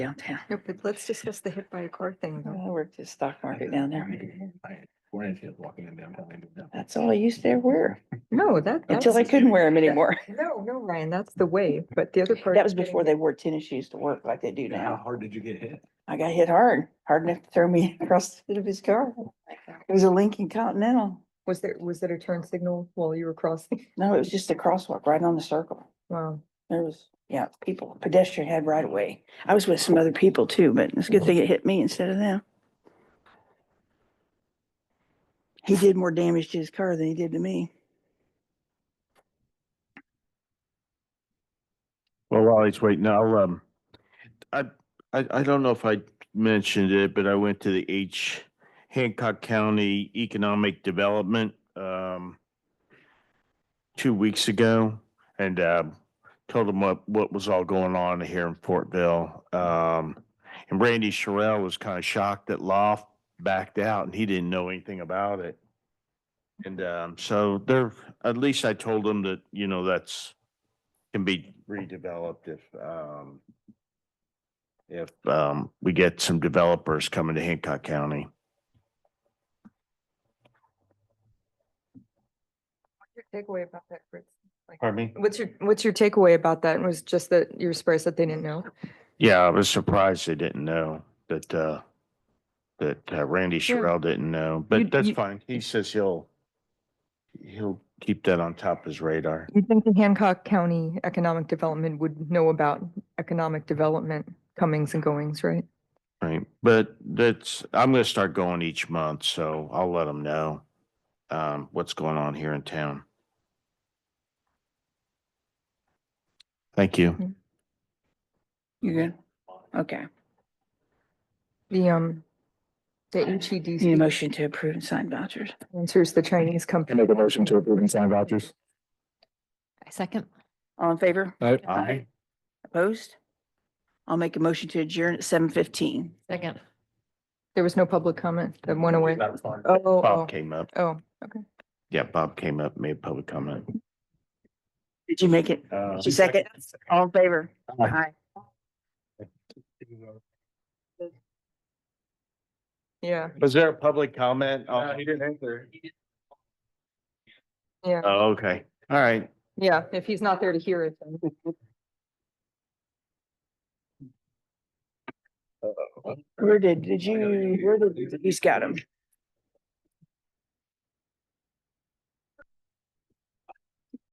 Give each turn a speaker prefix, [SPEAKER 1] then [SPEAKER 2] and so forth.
[SPEAKER 1] downtown.
[SPEAKER 2] No, but let's discuss the hit by a car thing
[SPEAKER 1] I
[SPEAKER 2] though.
[SPEAKER 1] worked at stock market down there.
[SPEAKER 3] Foreign kids walking in downtown. they do that.
[SPEAKER 1] That's all I used to wear
[SPEAKER 2] No, that.
[SPEAKER 1] until I
[SPEAKER 2] that's-
[SPEAKER 1] couldn't wear them anymore.
[SPEAKER 2] No, no, Ryan, that's the way, but the other part.
[SPEAKER 1] That
[SPEAKER 2] is
[SPEAKER 1] was
[SPEAKER 2] getting
[SPEAKER 1] before they wore tennis shoes to work like they do
[SPEAKER 3] Yeah, How
[SPEAKER 1] now.
[SPEAKER 3] hard did you get hit?
[SPEAKER 1] I got hit hard, hard enough to throw me across the hood of his car. It was a Lincoln Continental.
[SPEAKER 2] it. Was there, was there a turn signal while you were crossing?
[SPEAKER 1] No, it was just a crosswalk right on the circle.
[SPEAKER 2] Wow.
[SPEAKER 1] There was, yeah, people, pedestrian had right away. I was with some other people too, but it's a good thing it hit me instead of them. He did more damage to his car than he did to me.
[SPEAKER 4] Well, while he's waiting, I'll, um, I, I, I don't know if I mentioned it, but I went to the H Hancock County Economic Development, um, two weeks ago and, um, told them what, what was all going on here in Fortville. Um, and Randy Sherrill was kind of shocked that Loft backed out and he didn't know anything about it. And, um, so there, at least I told him that, you know, that's can be redeveloped if, um, if, um, we get some developers coming to Hancock County.
[SPEAKER 2] What's your takeaway about that, Fritz? Like,
[SPEAKER 4] Pardon me?
[SPEAKER 2] What's your, what's your takeaway about that? Was just that you were surprised that they didn't know?
[SPEAKER 4] Yeah, I was surprised they didn't know that, uh, that uh, Randy
[SPEAKER 2] Yeah.
[SPEAKER 4] Sherrill didn't know,
[SPEAKER 2] You-
[SPEAKER 4] but that's
[SPEAKER 2] you-
[SPEAKER 4] fine. He says he'll, he'll keep that on top of his radar.
[SPEAKER 2] You think the Hancock County Economic Development would know about economic development comings and goings, right?
[SPEAKER 4] Right, but that's, I'm gonna start going each month, so I'll let them know, um, what's going on here in town. Thank you.
[SPEAKER 1] You good? Okay.
[SPEAKER 2] The, um, the
[SPEAKER 1] Need a
[SPEAKER 2] HEDC
[SPEAKER 1] motion to approve and sign vouchers.
[SPEAKER 2] answers the Chinese company.
[SPEAKER 3] make a motion to approve and sign vouchers.
[SPEAKER 2] Second.
[SPEAKER 1] All in favor?
[SPEAKER 3] Aye.
[SPEAKER 1] Aye. Opposed? I'll make a motion to adjourn at seven fifteen.
[SPEAKER 2] Second. There was no public comment that went away. Oh, oh,
[SPEAKER 4] Bob
[SPEAKER 2] oh,
[SPEAKER 4] came up.
[SPEAKER 2] oh, okay.
[SPEAKER 4] Yeah, Bob came up, made a public comment.
[SPEAKER 1] Did you make it?
[SPEAKER 4] Uh,
[SPEAKER 1] Second, all in favor? Aye.
[SPEAKER 2] Yeah,
[SPEAKER 4] Was there a public comment? Oh,
[SPEAKER 3] didn't answer.
[SPEAKER 2] yeah,
[SPEAKER 4] Oh, okay. All right.
[SPEAKER 2] yeah. If he's not there to hear it, then.
[SPEAKER 1] Where did, did you, where did, he's got him.